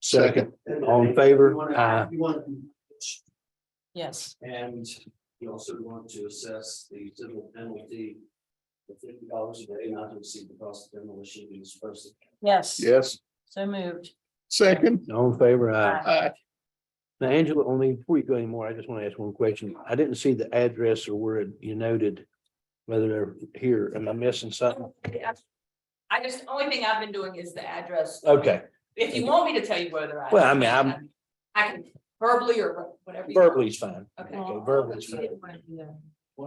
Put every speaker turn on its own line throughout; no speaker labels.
Second.
All in favor? Aye.
You want,
Yes,
and you also want to assess the civil penalty of fifty dollars a day not to exceed the cost of demolition being supposed
yes,
Yes,
so moved.
second.
All in favor?
Uh,
Aye.
Aye.
Aye.
Now Angela, only before you go anymore, I just want to ask one question. I didn't see the address or where it- you noted whether they're here. Am I missing something?
uh,
I just, only thing I've been doing is the address.
Okay,
If you want me to tell you where they're at.
Well, I mean, I'm-
I can verbally or whatever. you want.
verbally is fine.
Okay.
Okay, verbally is fine.
to.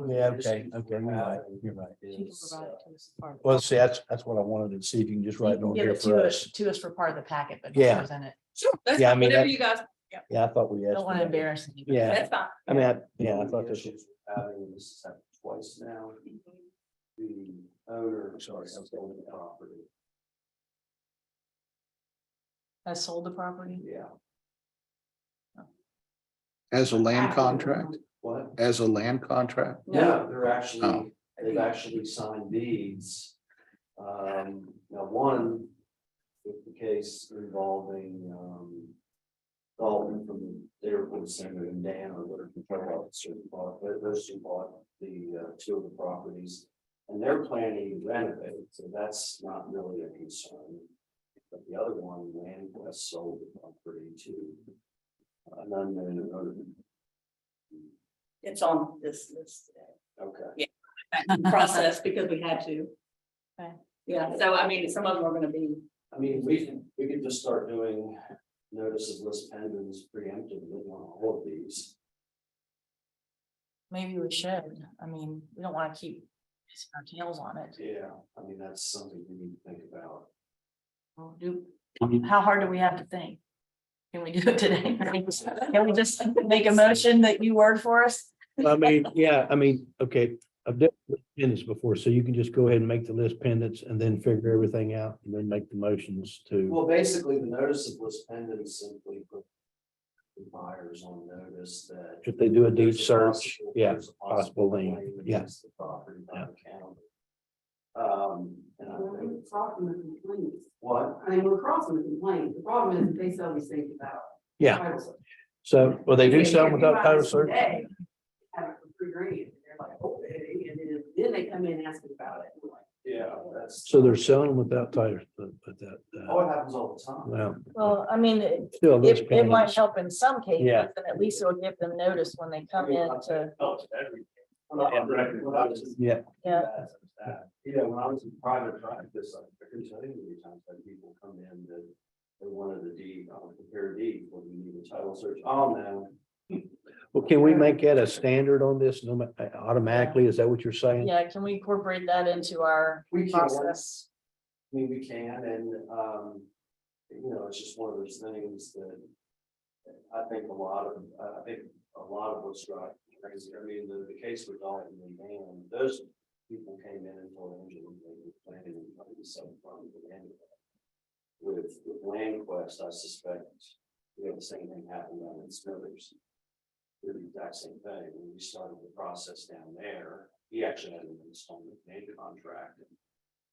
Yeah, okay, okay, you're right, you're right.
Is, uh,
Well, see, that's, that's what I wanted to see if you can just write it on
Give
here
it
for
to us,
us.
to us for part of the packet, but.
Yeah.
Present it.
Sure, that's
Yeah, I
fine,
mean,
whatever
that-
you guys,
Yeah, I thought we asked.
Don't want to
for that.
embarrass anybody.
Yeah,
that's fine.
I mean, I, yeah, I
One of
thought
the
this was.
issues we're Having this has happened twice now. The owner, sorry, I was going to property,
Has sold the property.
yeah.
As a land contract,
What?
as a land contract.
No, they're actually,
Oh.
they've actually signed deeds. Um, now one, with the case involving, um. Dalton from the airport center and Dan or whatever control officer bought, tho- those two bought the, uh, two of the properties. And they're planning to renovate, so that's not really a concern. But the other one, Land West sold the property to uh, an unknown owner.
It's on this list,
Okay.
uh, process because we had to.
Okay.
Yeah, so I mean, some of them are gonna be,
I mean, we can, we could just start doing notices list pendants preemptively on all of these.
Maybe we should. I mean, we don't want to keep our tails on it.
Yeah, I mean, that's something we need to think about.
Well, Do, how hard do we have to think? Can we do it today? Can we just make a motion that you word for us?
I mean, yeah, I mean, okay, I've done pendants before, so you can just go ahead and make the list pendants and then figure everything out and then make the motions to.
Well, basically, the notice of list pendants simply put the buyers on notice that.
If they do a deed
there's a
search,
possible-
yeah,
there's a
possible lien,
claim
yeah.
against The property by the county. Um, and
Uh,
I think,
Problem with complaints.
what?
I mean, we're crossing the complaint. The problem is they sell these things without.
Yeah.
title search.
So, well, they do
If
sell
you
without
buy
title
this
search?
today, Have it for three grand. They're like, oh, eh, and then, then they come in asking about it. We're like,
Yeah, that's.
So they're selling without title, but that, uh,
Oh, it happens all the time.
well.
Well, I mean, it,
Still list
it it might
pendants.
help in some cases,
Yeah.
and at least it'll give them notice when they come in to,
Oh, every. When I when I was
Yeah,
yeah.
that. You know, when I was in private practice, I couldn't tell you how many times that people come in that they wanted a deed, I'll prepare a deed, when you need a title search, oh, no.
well, can we make that a standard on this no ma- automatically? Is that what you're saying?
Yeah, can we incorporate that into our
We can, I
process?
mean, we can, and, um, you know, it's just one of those things that I think a lot of, I think a lot of what's right, crazy, I mean, the, the case with Dalton and Dan, those people came in and told Angela they were planning on putting the seven farm anyway. With, with Land Quest, I suspect, you know, the same thing happened down in Smithers. Did The exact same thing, when we started the process down there, he actually had an installment made contract. and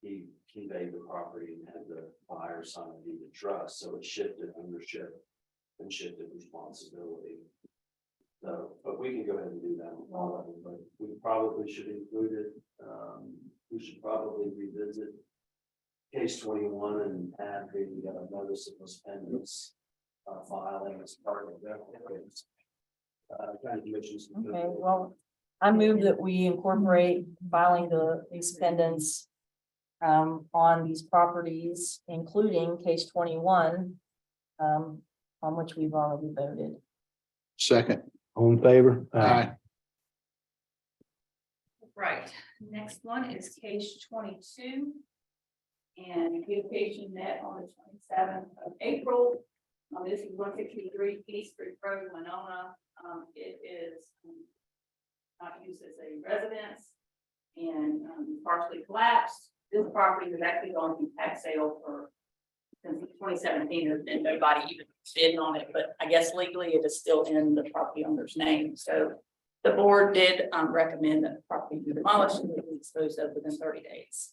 He conveyed the property and had the buyer sign a deed of trust, so it shifted ownership and shifted responsibility. So, but we can go ahead and do that on all of them, but we probably should include it, um, we should probably revisit. Case twenty-one and add the uh, notice of those pendants, uh, filing as part of that. Uh, kind of mentions.
Okay, well, I move that we incorporate filing the these pendants um, on these properties, including case twenty-one, um, on which we've already voted.
Second.
All in favor?
Aye.
right, next one is case twenty-two. And beautification met on the twenty-seventh of April. Um, this is one sixty-three East Street Road, Winona. Um, it is um, not used as a residence and um, partially collapsed. This property was actually going to tax sale for since twenty seventeen, there's been nobody even bidding on it, but I guess legally it is still in the property owner's name, so the board did um recommend that the property be demolished and be disposed of within thirty days.